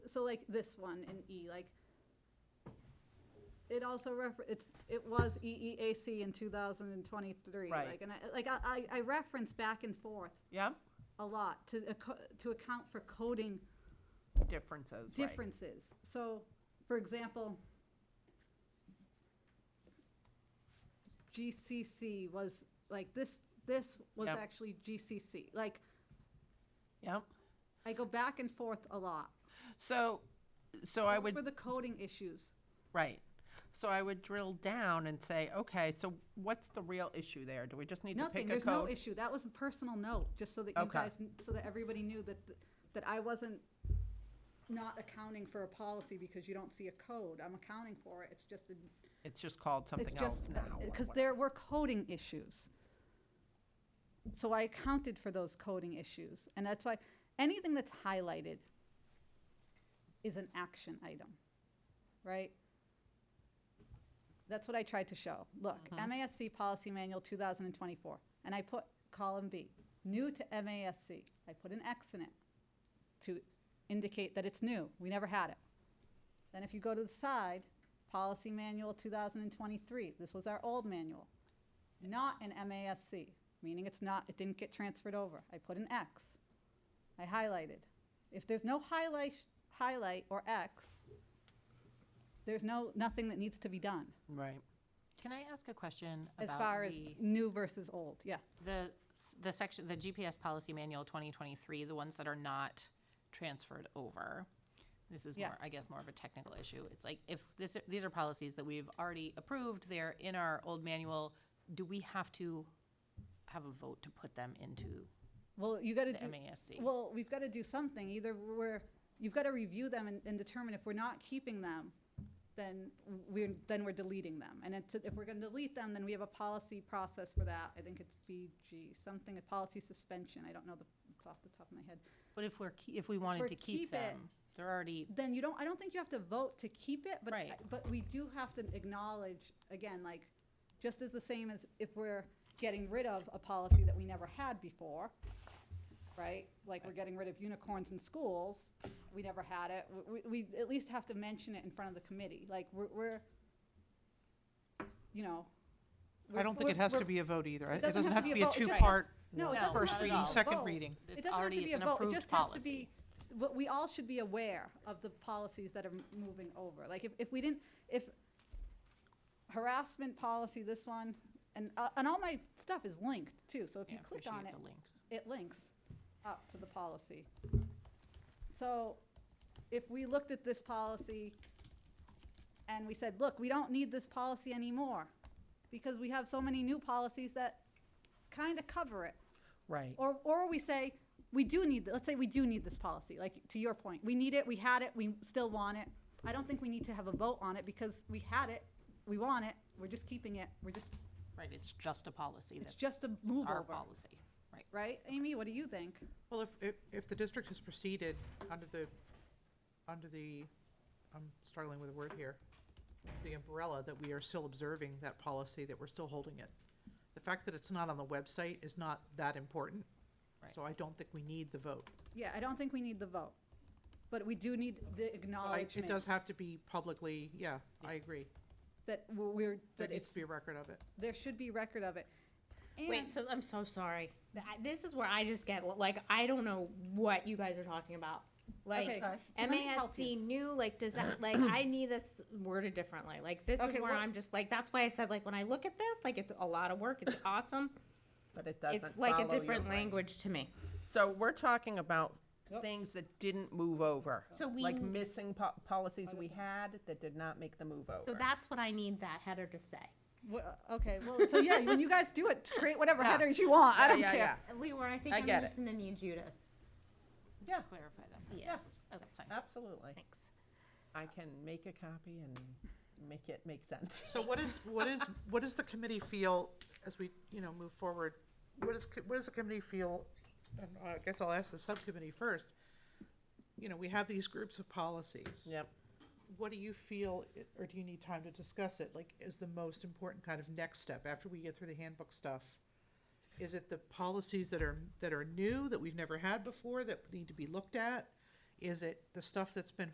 so like this one in E, like, it also refer, it's, it was E EEAC in two thousand and twenty-three. Right. Like, and I, like, I, I I reference back and forth Yeah, a lot to, acco- to account for coding differences, right. differences. So, for example, GCC was, like, this, this was Yep. actually GCC. Like, Yep. I go back and forth a lot. So, so I Those would, were the coding issues. right. So I would drill down and say, okay, so what's the real issue there? Do we just need to Nothing, pick a there's no code? issue. That was a personal note, just so that you Okay. guys, kn- so that everybody knew that, th- that I wasn't not accounting for a policy because you don't see a code. I'm accounting for it. It's just, a- It's just called it's something else just, now. or because what- there were coding issues. So I accounted for those coding issues. And that's why, anything that's highlighted is an action item, right? That's what I tried to show. Look, Mm-hmm. MASC Policy Manual 2024, and I put column B, new to MASC. I put an X in it to indicate that it's new. We never had it. Then if you go to the side, Policy Manual 2023, this was our old manual, not an MASC, meaning it's not, it didn't get transferred over. I put an X. I highlighted. If there's no highlight, highlight or X, there's no, nothing that needs to be done Right. Can I ask a question as about far as the- new versus old, yeah. the, s- the section, the GPS Policy Manual 2023, the ones that are not transferred over? This is Yeah. more, I guess, more of a technical issue. It's like, if this, these are policies that we've already approved, they're in our old manual, do we have to have a vote to put them into Well, you gotta the do, MASC? well, we've gotta do something, either we're, you've gotta review them and, and determine if we're not keeping them, then we're, then we're deleting them. And it's, if we're gonna delete them, then we have a policy process for that. I think it's BG, something, a policy suspension, I don't know the, it's off the top of my head. But if we're, ke- if we we're wanted to keep keep it- them, they're already, then you don't, I don't think you have to vote to keep it, but, Right. but we do have to acknowledge, again, like, just as the same as if we're getting rid of a policy that we never had before, right? Like, we're getting rid of unicorns in schools, we never had it, we, we we at least have to mention it in front of the committee, like, we're, we're, you know. I don't think it we're- has to we're- be a vote either. I- It It doesn't have to be a vote, it just- two-part, No, it No, doesn't first have to be reading, a second vote. reading. It's It doesn't have already- to be a it's an vote, it approved just has to policy. be, but we all should be aware of the policies that are m- moving over. Like, if, if we didn't, if harassment policy, this one, and, uh, and all my stuff is linked too, so if yeah, you click on appreciate it, the links. it links up to the policy. So if we looked at this policy and we said, look, we don't need this policy anymore because we have so many new policies that kind of cover it. Right. Or, or we say, we do need, let's say we do need this policy, like, to your point, we need it, we had it, we still want it. I don't think we need to have a vote on it because we had it, we want it, we're just keeping it, we're just, Right, it's just a policy it's that's just a move our over, policy, right? right? Amy, what do you think? Well, if, if, if the district has proceeded under the, under the, I'm struggling with a word here, the umbrella that we are still observing that policy, that we're still holding it. The fact that it's not on the website is not that important. So I don't think we need the vote. Yeah, I don't think we need the vote, but we do need the But I- It does acknowledgement have to be publicly, yeah, I agree. that we're, There that needs it's, to be a record of it. there should be record of it. And- Wait, so I'm so sorry. Th- I- This is where I just get like I don't know what you guys are talking about. Like uh, Okay, Okay. let me help MASC new, like does that like I need this worded differently. Like this Okay, is where well- I'm just like that's why I said like when I look at this, like it's a lot of work. It's awesome. But it doesn't it's like a follow your different brain. language to me. So we're talking about things that didn't move over. So we Like n- missing po- policies we had that did not make the move over. So that's what I need that header to say. Well, Okay, well, so yeah, when you guys do it, create whatever headers you want, I Yeah, don't yeah, care. Leora, I think I I'm get just gonna need you to Yeah, Clarify them. Yeah. Okay. That's fine. absolutely. Thanks. I can make a copy and make it make sense. So what is, what is, what does the committee feel as we, you know, move forward? What is, co- what does the committee feel, and I guess I'll ask the subcommittee first. You know, we have these groups of policies. Yep. What do you feel, i- or do you need time to discuss it, like, is the most important kind of next step after we get through the handbook stuff? Is it the policies that are, that are new, that we've never had before, that need to be looked at? Is it the stuff that's been